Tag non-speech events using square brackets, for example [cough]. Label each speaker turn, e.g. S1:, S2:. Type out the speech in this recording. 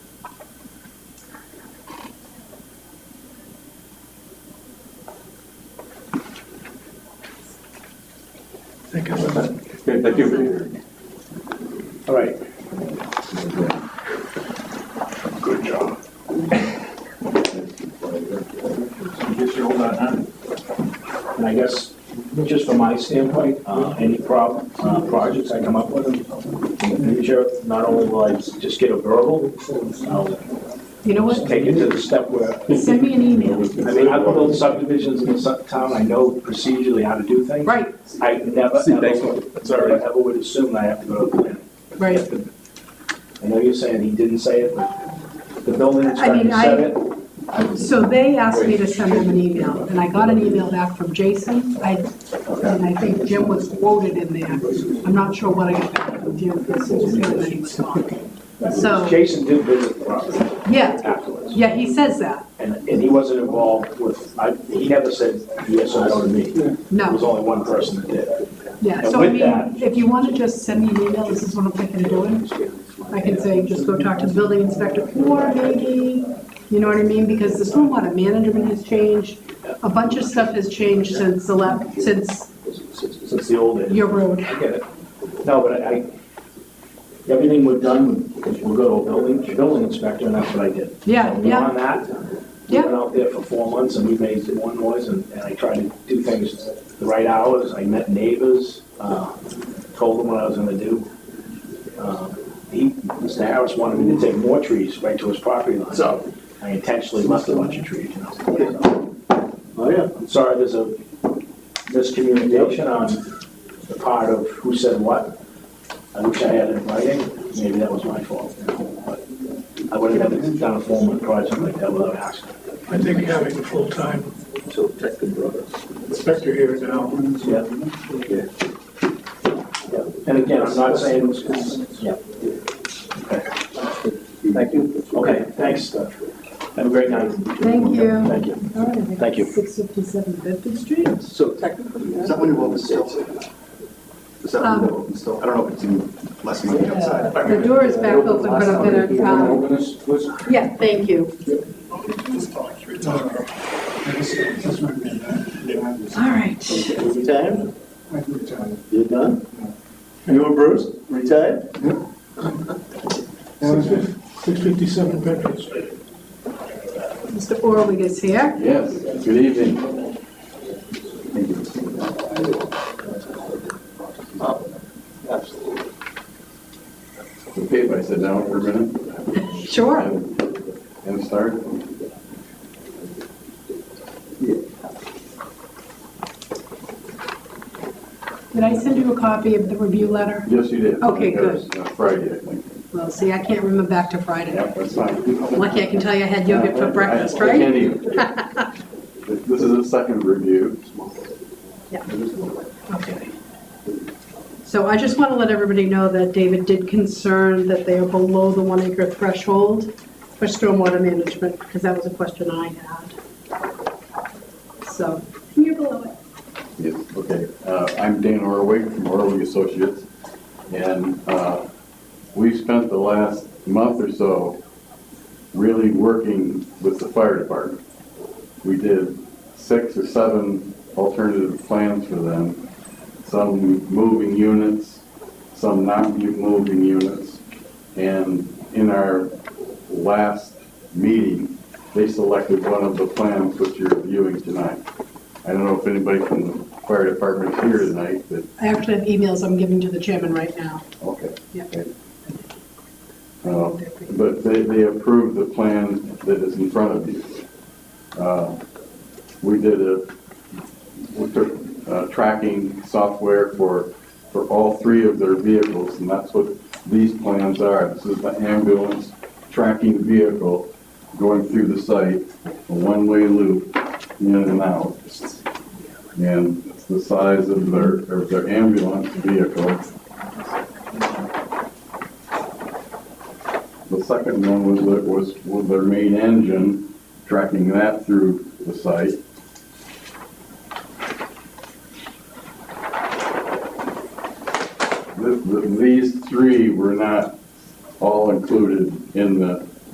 S1: think I'm with it.
S2: Okay, thank you.
S3: All right.
S1: Good job.
S3: Just hold on, huh? And I guess, just from my standpoint, uh, any prob, uh, projects I come up with, in the future, not only will I just get a verbal, I'll
S4: You know
S3: just
S4: what?
S3: take it to the step where,
S4: Send me an email.
S3: I mean, I have built subdivisions in this town, I know procedurally how to do things.
S4: Right,
S3: I never,
S2: See,
S3: ever,
S2: thanks.
S3: sorry, ever would assume I have to go to the plan.
S4: right.
S3: I know you're saying he didn't say it, but the building
S4: I mean,
S3: inspector
S4: I-
S3: said it.
S4: So they asked me to send them an email, and I got an email back from Jason. I, and I think Jim was quoted in there. I'm not sure what I got back from Jim, because he was there and then he was gone. So,
S3: Jason did visit the property
S4: yeah,
S3: afterwards,
S4: yeah, he says that.
S3: and, and he wasn't involved with, I, he never said yes or no to me. There was
S4: No,
S3: only one person that did.
S4: yeah.
S3: And
S4: So I
S3: with
S4: mean,
S3: that-
S4: if you want to just send me an email, this is what I'm thinking of doing. I can say, just go talk to the building inspector, or maybe, you know what I mean? Because the stormwater management has changed. A bunch of stuff has changed since the, la- since
S3: Since the old days.
S4: your road.
S3: I get it. No, but I, I- everything we've done, we'll go to a building, building inspector, and that's what I did.
S4: Yeah,
S3: So
S4: yeah.
S3: Beyond that, we
S4: Yeah.
S3: went out there for four months, and we made one noise, and, and I tried to do things the right hours, I met neighbors, uh, told them what I was gonna do. Uh, He, Mr. Harris wanted me to take more trees right to his property line. So. I intentionally left a bunch of trees, you know. Oh, yeah. I'm sorry, there's a miscommunication on the part of who said what. I wish I had it in writing, maybe that was my fault, you know, but I would have never done a formal project like that without asking.
S1: I think having a full-time
S2: So tech and brothers.
S1: inspector here now,
S3: Yeah.
S2: Yeah.
S3: Yeah. And again, I'm not saying it was, yeah. Okay.
S2: Thank you.
S3: Okay, thanks. Have a great night.
S4: Thank you.
S3: Thank you.
S4: Thank
S3: you.
S4: Six fifty-seven Bedford Street?
S2: So
S5: Technically,
S6: Is
S5: yeah.
S6: that window open still? Is that window open still? I don't know if it's even less money outside. I
S4: The
S6: mean,
S4: door is back open, but I'm gonna, um,
S2: Open this, please.
S4: yeah, thank you. All right.
S5: Retired? You're done? You and Bruce, retired?
S1: six fifty-seven Bedford Street.
S4: Mr. Orwig is here.
S5: Yes, good evening.
S2: Absolutely.
S5: Okay, if I sit down for a minute
S4: Sure.
S5: and start?
S4: Did I send you a copy of the review letter?
S5: Yes, you did.
S4: Okay, good.
S5: It was, uh, Friday, I think.
S4: Well, see, I can't remember back to Friday.
S5: Yep, that's fine. Uh,
S4: Lucky I can tell you I had yogurt for breakfast,
S5: I- I
S4: right?
S5: can't even.
S4: [laughs]
S5: This is a second review.
S4: Yeah. Okay. So I just want to let everybody know that David did concern that they are below the one acre threshold for stormwater management, because that was a question I had. So, you're below it.
S5: Yes, okay. Uh, I'm Dan Orwig from Orwig Associates, and uh, we've spent the last month or so really working with the fire department. We did six or seven alternative plans for them, some moving units, some not moving units, and in our last meeting, they selected one of the plans which you're viewing tonight. I don't know if anybody from the fire department is here tonight, but,
S4: I actually have emails I'm giving to the chairman right now.
S5: okay.
S4: Yeah.
S5: okay. Uh, But they, they approved the plan that is in front of you. Uh, We did a, we took uh, tracking software for, for all three of their vehicles, and that's what these plans are. This is the ambulance tracking vehicle going through the site, a one-way loop, in and out. And it's the size of their, of their ambulance vehicle. The second one was, the- was, was their main engine, tracking that through the site. Th- th- These three were not all included in the